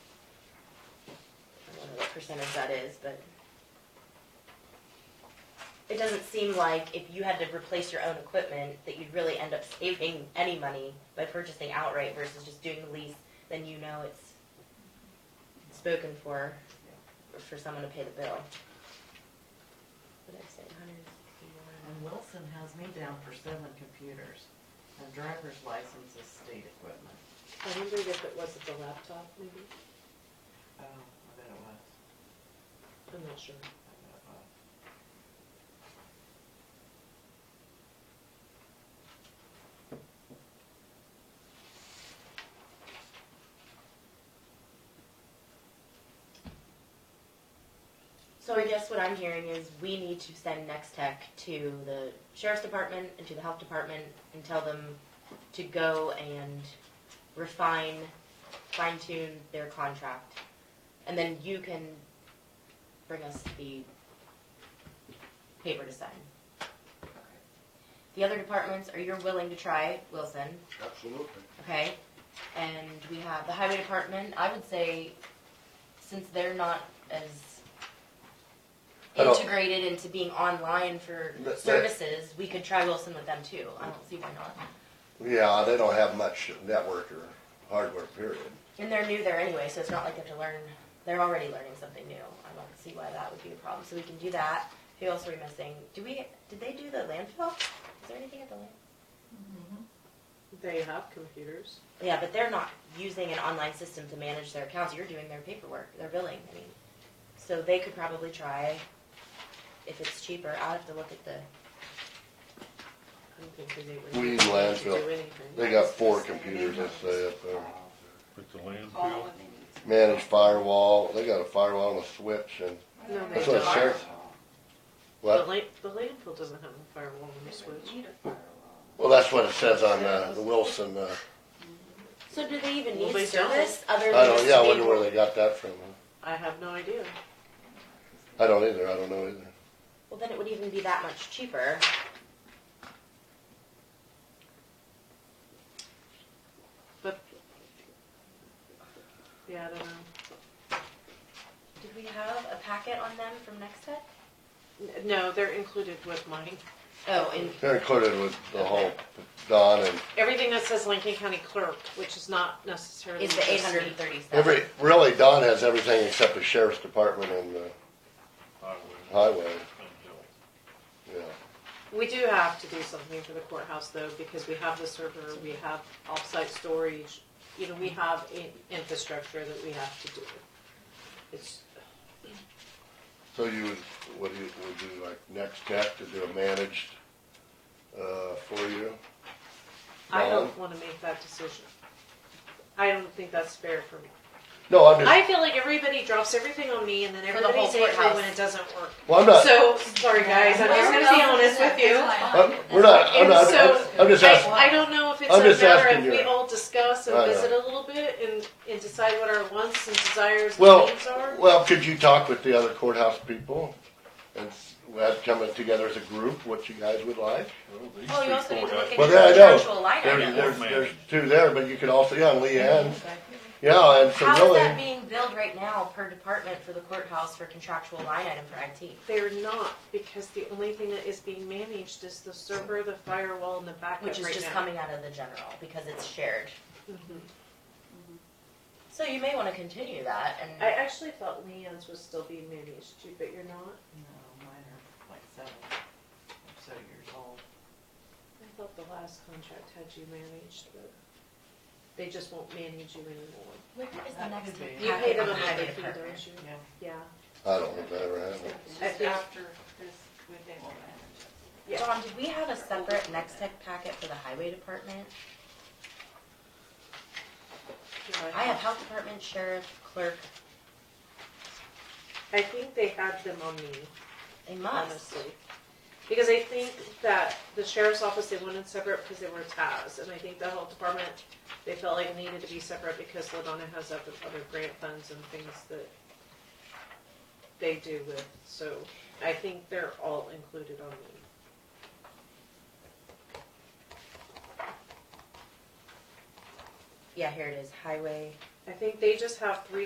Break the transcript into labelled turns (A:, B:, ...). A: percentage that is, but it doesn't seem like if you had to replace your own equipment, that you'd really end up saving any money by purchasing outright versus just doing the lease, then you know it's spoken for, for someone to pay the bill. What did I say, 161?
B: And Wilson has me down for seven computers, and driver's license is state equipment.
C: I wondered if it wasn't the laptop, maybe?
B: Oh, I bet it was,
C: I'm not sure.
B: I bet it was.
A: So I guess what I'm hearing is we need to send Next Tech to the sheriff's department and to the health department and tell them to go and refine, fine tune their contract. And then you can bring us the paper to sign. The other departments, are you willing to try Wilson,
D: Absolutely.
A: okay? And we have the highway department, I would say, since they're not as
E: I don't-
A: integrated into being online for
E: But that-
A: services, we could try Wilson with them too. I don't see why not.
E: Yeah, they don't have much network or hardware, period.
A: And they're new there anyway, so it's not like they have to learn, they're already learning something new. I don't see why that would be a problem, so we can do that. Who else are we missing? Do we, did they do the landfill? Is there anything at the land?
C: They have computers.
A: Yeah, but they're not using an online system to manage their accounts. You're doing their paperwork, their billing, I mean. So they could probably try, if it's cheaper, I'll have to look at the,
C: I'm thinking they would.
E: We need
C: to do
E: landfill.
C: anything.
E: They got four computers, let's say, up there.
D: With the landfill?
E: Manage firewall, they got a firewall and a switch and,
C: No, they
E: That's what
C: don't.
E: sheriff-
C: The
E: what?
C: la- the landfill doesn't have a firewall on the switch.
E: Well, that's what it says on, uh, the Wilson, uh,
A: so do they even
C: Well,
A: need
C: they don't.
A: service other
E: I
A: than
E: don't,
A: just
E: yeah, I wonder
A: being-
E: where they got that from.
C: I have no idea.
E: I don't either, I don't know either.
A: Well, then it would even be that much cheaper.
C: Yeah, I don't know.
A: Did we have a packet on them from Next Tech?
C: N- No, they're included with mine.
A: Oh, and
E: They're included with the whole Don and
C: Everything that says Lincoln County Clerk, which is not necessarily.
A: is the eight
C: just me.
A: hundred and thirty-seven?
E: every, really Don has everything except the sheriff's department and the highway, yeah.
C: We do have to do something for the courthouse though, because we have the server, we have offsite storage, you know, we have in- infrastructure that we have to do. It's,
E: So you would, what do you, would you like next tech to do a managed, uh, for you?
C: I don't
E: Don?
C: wanna make that decision. I don't think that's fair for me.
E: No, I'm just,
C: I feel like everybody drops everything on me and then
A: For the whole
C: everybody's angry when
A: courthouse.
C: it doesn't work.
E: well, I'm not,
C: So, sorry guys, I'm just gonna be honest with you.
E: I'm, we're not, I'm not,
C: And
E: I'm-
C: so,
E: I'm just asking,
C: I, I don't know if it's
E: I'm just
C: a matter
E: asking
C: of we
E: you.
C: all discuss and
E: I know.
C: visit a little bit and, and decide what our wants and desires and
E: well,
C: needs are.
E: well, could you talk with the other courthouse people? And s- we had come together as a group, what you guys would like?
A: Well, Oh, you also need to look at
E: Well,
A: your
E: yeah, I know.
A: contractual line
E: There's,
A: items.
E: there's,
D: managed.
E: there's two there, but you could also, yeah, and Leanne, yeah, and so
A: How is that
E: really,
A: being billed right now per department for the courthouse for contractual line item for IT?
C: They're not, because the only thing that is being managed is the server, the firewall, and the backup
A: Which is
C: right
A: just
C: now. Mm-hmm.
A: coming out of the general because it's shared. So you may wanna continue that
C: I
A: and,
C: actually thought Leanne's was still being managed too, but you're not.
B: No, mine are like seven, or so years old.
C: I thought the last contract had you managed, but they just won't manage you anymore.
A: what is the
B: That
A: next
B: could be.
A: packet
C: You pay
A: on
C: them
A: the
C: a higher
A: highway
C: fee, don't
A: department?
C: you?
B: Yeah.
C: Yeah.
E: I don't know if that ever happened.
C: Just
B: after this, when they will manage it.
C: Yeah.
A: John, did we have a separate Next Tech packet for the highway department? I have health department, sheriff, clerk,
C: I think they had them on me.
A: they must.
C: honestly. Because I think that the sheriff's office, they wanted separate because they were tabs, and I think the health department, they felt like it needed to be separate because Ladonna has other, other grant funds and things that they do with, so I think they're all included on me.
A: Yeah, here it is, highway.
C: I think they just have three